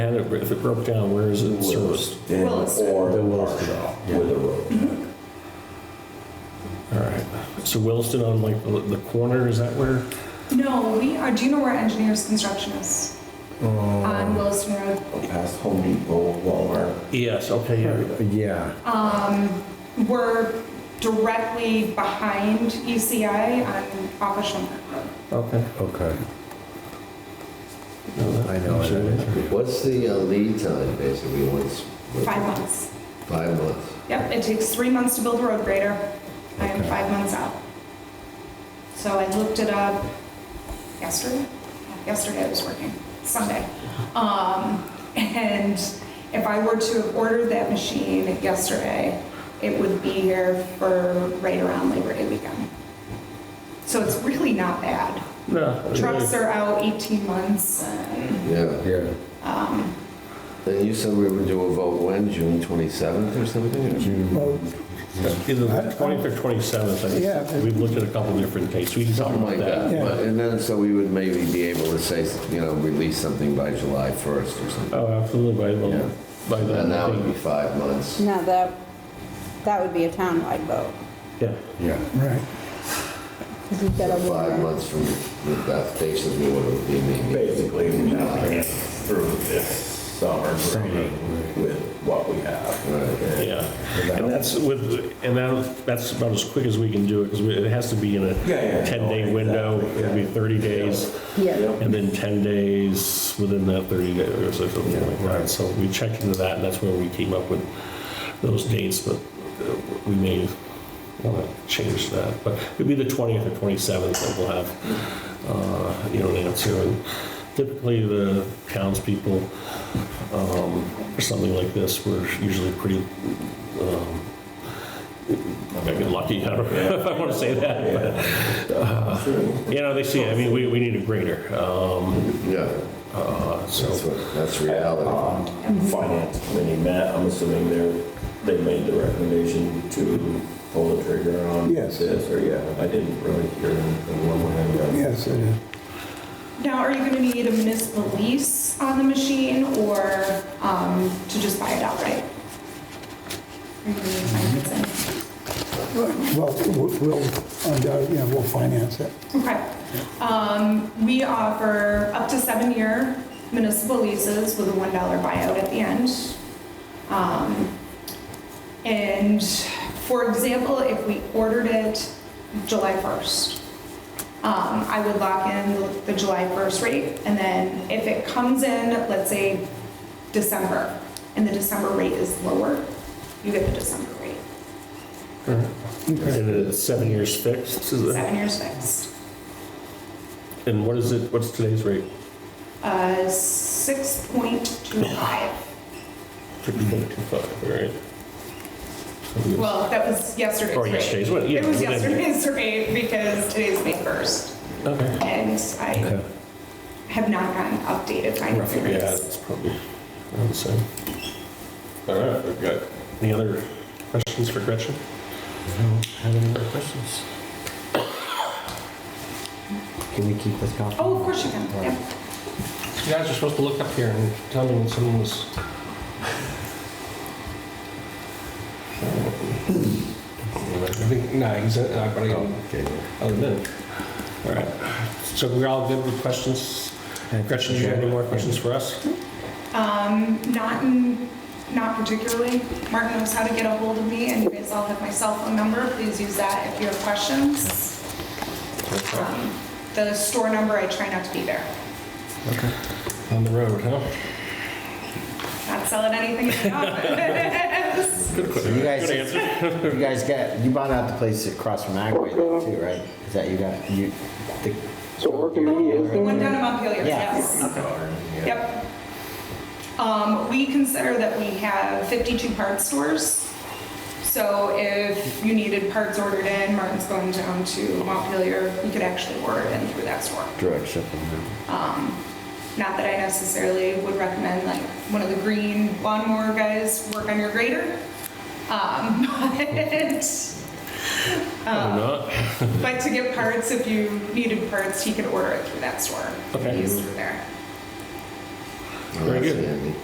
And if it- if it broke down, where is it serviced? And Williston. or The Williston. Warshaw with a road. All right, so Williston on like the the corner, is that where? No, we are, do you know where Engineers Construction is? On Williston Road. Past Home Depot, Walmart. Yes, okay, yeah. Yeah, Um, We're directly behind ECI on off of Shumpert Road. okay. okay. No, that- I know it is. What's the uh, lead time, basically, once? Five months. Five months. Yep, it takes three months to build a road grader. I am Okay. five months out. So I looked it up yesterday. Yesterday I was working, Sunday. Um, and if I were to have ordered that machine yesterday, it would be here for right around Labor Day weekend. So it's really not bad. No. Trucks are out 18 months and, Yeah. Yeah, And you said we would do a vote when, June 27th or something? Well, Either the 20th or 27th, I Yeah. think. We've looked at a couple different dates, we can talk Something like about that. that. Yeah. But- And then, so we would maybe be able to say, you know, release something by July 1st or something. Oh, absolutely, by, Yeah. the- by then. And that I would be think- five months. Now that, that would be a townwide vote, Yeah, yeah. right. because you've got a Five warrant. months from the death date of the order would be maybe. Basically, we now get through this summer training with what we have. Right. yeah. And that's with, and that, that's about as quick as we can do it, because it has to be in a Yeah, yeah. 10-day window, Exactly, it'd be 30 days. Yeah, And then 10 days within that 30 days or something like that. So we checked into that and that's where we came up with those dates, but uh, we may want to change that. But it'd be the 20th or 27th that we'll have, uh, you know, an answer. And typically the townspeople um, for something like this, we're usually pretty, um, I get lucky, I don't know if I want to say that, but you know, they see, I mean, we, we need a grader, um, Yeah, uh, that's so, what, that's reality. Um, Finance committee met, I'm assuming they're, they made the recommendation to pull the trigger on Yes. this, or yeah, I didn't really hear anything one way or the other. Yes, it is. Now, are you going to need a municipal lease on the machine or um, to just buy it outright? Are you going to need financing? Well, we'll- we'll, undoubtedly, yeah, we'll finance it. Okay. Um, We offer up to seven-year municipal leases with a $1 buyout at the end. Um, And for example, if we ordered it July 1st, um, I would lock in the- the July 1st rate. And then if it comes in, let's say December, and the December rate is lower, you get the December rate. and it's seven years fixed, is it? Seven years fixed. And what is it, what's today's rate? Uh, 6.25. Fifty point two five, right? Well, that was yesterday's Or rate. yesterday's, what- yeah, It was whatever. yesterday's rate because today's May 1st, Okay. and Okay. I have not gotten updated financing Roughly, yeah, rates. it's probably around the same. All right, we've got, any other questions for Gretchen? Have any other questions? Can we keep this copy? Oh, of course you can, yeah. You guys are supposed to look up here and tell me when someone was. Hmm. I think, no, he's, uh, I've already Okay. Other than that. All right. So we're all good with questions? Gretchen, do you have any more questions for us? Um, Not in, not particularly. Martin knows how to get a hold of me, and you guys all have my cell phone number. Please use that if you have questions. Um, The store number, I try not to be there. On the road, huh? Not selling anything in the office. So you guys, you guys got, you bought out the place across from Agway too, right? Is that you got, you, the. So Orchid is The one down in Montpelier, Yeah. yes. Yep. Um, we consider that we have 52 parts stores. So if you needed parts ordered in, Martin's going down to Montpelier, you could actually order it in through that store. Direct shipping. yeah. Not that I necessarily would recommend like one of the green lawnmower guys work on your grader. Um, but, Probably not. but to get parts, if you needed parts, he could order it through that store. Okay. He's through there. Well, Very that's good. handy.